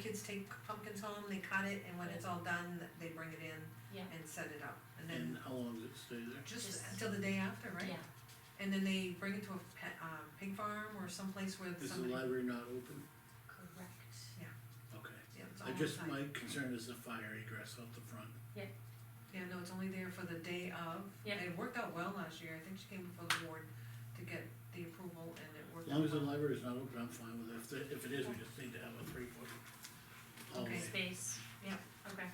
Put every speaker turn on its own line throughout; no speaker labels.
kids take pumpkins home, they cut it, and when it's all done, they bring it in
Yeah,
and set it up. And
And
then,
how long does it stay there?
just
Just-
until the day after, right?
yeah,
And then they bring it to a pet, uh, pig farm or someplace where
Is the
somebody,
library not open?
correct.
Okay.
yeah, it's all
I just,
outside.
my concern is the fire egress out the front.
Yeah, no, it's only there for the day of.
Yeah.
It worked out well last year, I think she came before the board to get the approval and it
As
worked out
long as the
well.
library is not open, I'm fine with it. If, there- if it is, we just need to have a three foot hallway.
Okay.
Space.
Yeah.
Okay,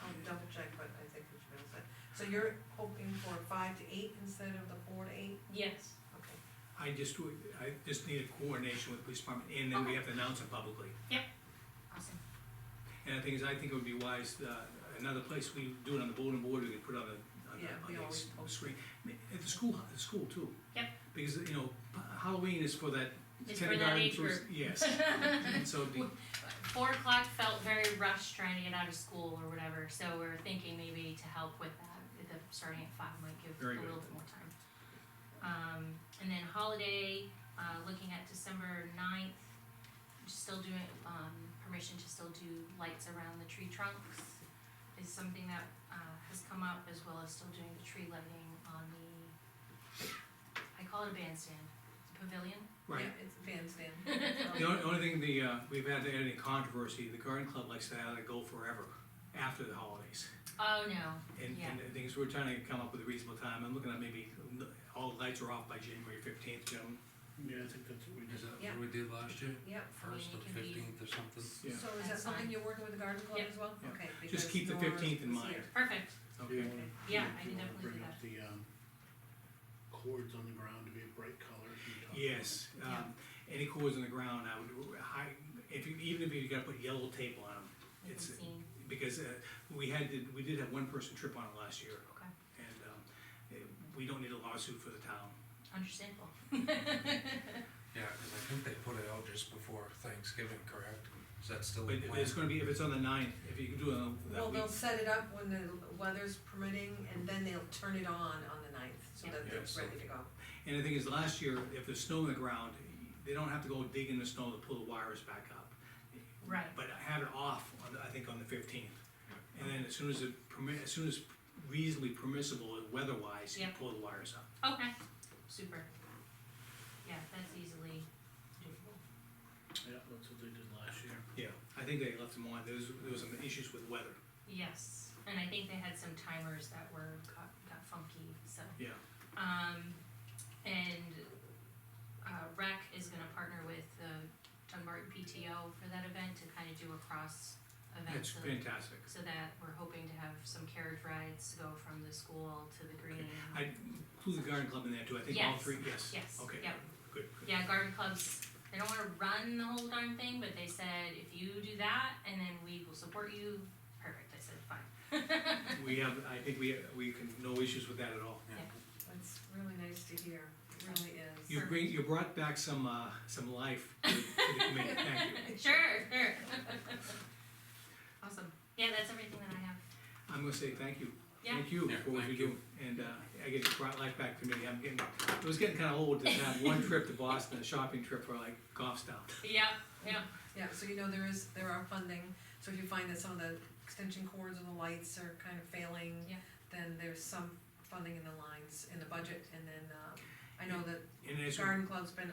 I'll double check, but I think we should be able to. So you're hoping for five to eight instead of the four to eight?
yes,
Okay.
I just, would- I just need a coordination with the police department, and then we have to announce it publicly.
awesome.
And the thing is, I think it would be wise, uh, another place, we do it on the bulletin board, we could put it on the, on
Yeah, we
the, on the
always
s-
post.
screen. I mean, At the school, at the school too.
Yep.
Because, you know, Halloween is for that
It's for that
kindergarten
age
through,
group.
yes. And so, it'd be-
Four o'clock felt very rushed trying to get out of school or whatever, so we're thinking maybe to help with that, the starting at five might give a
Very
little
good.
bit more time. Um, and then holiday, uh, looking at December ninth, still doing, um, permission to still do lights around the tree trunks is something that, uh, has come up, as well as still doing the tree lighting on the, I call it a bandstand, pavilion?
right.
Yeah, it's a bandstand.
The only, only thing, the, uh, we've had any controversy, the garden club likes to have it go forever, after the holidays.
Oh, no,
And,
Yeah.
and the thing is, we're trying to come up with a reasonable time, I'm looking at maybe, n- all the lights are off by January fifteenth, gentlemen.
Yeah, I think that's what we
Is
just,
that
Yeah.
what we did last year?
Yeah.
First or
it can be-
fifteenth or something?
So
Yeah.
is that
That's
something
fine.
you're working with the garden club
Yeah.
as well?
Yeah.
Okay.
Just
because
keep the
yours
15th in
was
mind.
here.
perfect,
Do you
Okay,
wanna-
Yeah, I can
do you wanna
definitely do
Bring
that.
up the, um, cords on the ground to be a bright color.
yes,
Yeah.
um, any cords on the ground, I would, high, if you, even if you gotta put yellow tape on them,
you can
It's-
see.
because, uh, we had, to- we did have one person trip on it last year.
Okay.
And, um, eh, we don't need a lawsuit for the town.
Understandable.
Yeah, cause I think they put it out just before Thanksgiving, correct? Is that still
But
the plan?
it's gonna be, if it's on the ninth, if you can do it on that
Well,
week.
they'll set it up when the weather's permitting and then they'll turn it on on the ninth so
Yeah.
that
Yeah,
it's
so-
ready to go.
And the thing is, last year, if there's snow in the ground, they don't have to go dig in the snow to pull the wires back up.
Right.
But I have it off on, the- I think, on the fifteenth. And then as soon as it permit, as soon as reasonably permissible weather-wise, you
Yeah.
pull the wires up.
Okay, super. Yeah, that's easily doable.
Yeah, that's what they did last year.
Yeah. I think they left them on, there was, there was some issues with weather.
Yes, and I think they had some timers that were, got, got funky, so.
Yeah.
Um, and, uh, rec is gonna partner with the Dunbarton PTO for that event to kind of do a cross event.
That's
so-
fantastic.
So that we're hoping to have some carriage rides to go from the school to the green.
I include the garden club in there too, I think all
Yes.
three, yes.
Yes,
Okay,
yep.
good, good.
Yeah, garden clubs, they don't wanna run the whole darn thing, but they said, if you do that, and then we will support you, perfect, I said, fine.
We have, I think we, we can, no issues with that at all.
Yeah.
That's really nice to hear, it really is.
You bring, you brought back some, uh, some life to to the committee, thank you.
Sure, sure. Awesome, yeah, that's everything that I have,
I'm gonna say thank you.
Yeah.
Thank you
Yeah,
for what you
thank
do. And, uh, I get brought life back to me, I'm getting, it was getting kinda old to have one trip to Boston, a shopping trip for like golf style.
yeah, yeah,
Yeah, so you know, there is, there are funding, so if you find that some of the extension cords and the lights are kind of failing,
Yeah.
then there's some funding in the lines, in the budget, and then, um, I know that
And as, we-
Garden Club's been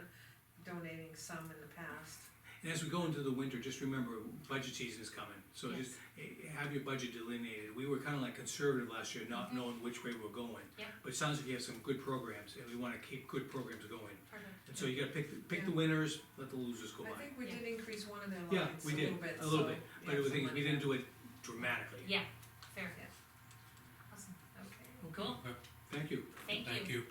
donating some in the past.
and as we go into the winter, just remember, budget season is coming, so just eh, have your budget delineated. We were kinda like conservative last year,
Mm-hmm.
not knowing which way we're going.
Yeah.
But it sounds like you have some good programs, and we wanna keep good programs going.
perfect,
And so you gotta pick, the- pick the winners, let the losers go by.
I think we did increase one of their
Yeah,
lines a
we did,
little bit,
a little
so
bit,
we
but
have
the
some
thing is, we
money
didn't
there.
do it dramatically.
yeah, fair.
Yeah.
Awesome,
Okay.
cool,
Thank you.
thank you.
Thank you.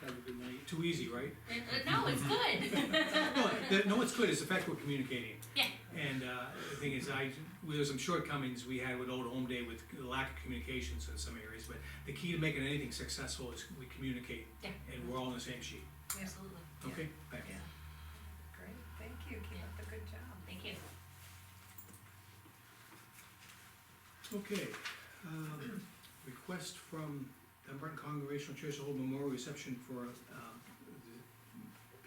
Have a good night.
Too easy, right?
Uh, uh, No, it's good.
No, the- no, what's good is the fact we're communicating.
Yeah.
And uh, the thing is, I, there were some shortcomings we had with Old Home Day with the lack of communications in some areas, but the key to making anything successful is we communicate.
Yeah.
And we're all on the same sheet,
Absolutely,
okay? Thank you.
Yeah. Great, thank you, keep up the good job.
thank you.
Okay, um, request from Dunbarton Congregational Church to hold memorial reception for, um,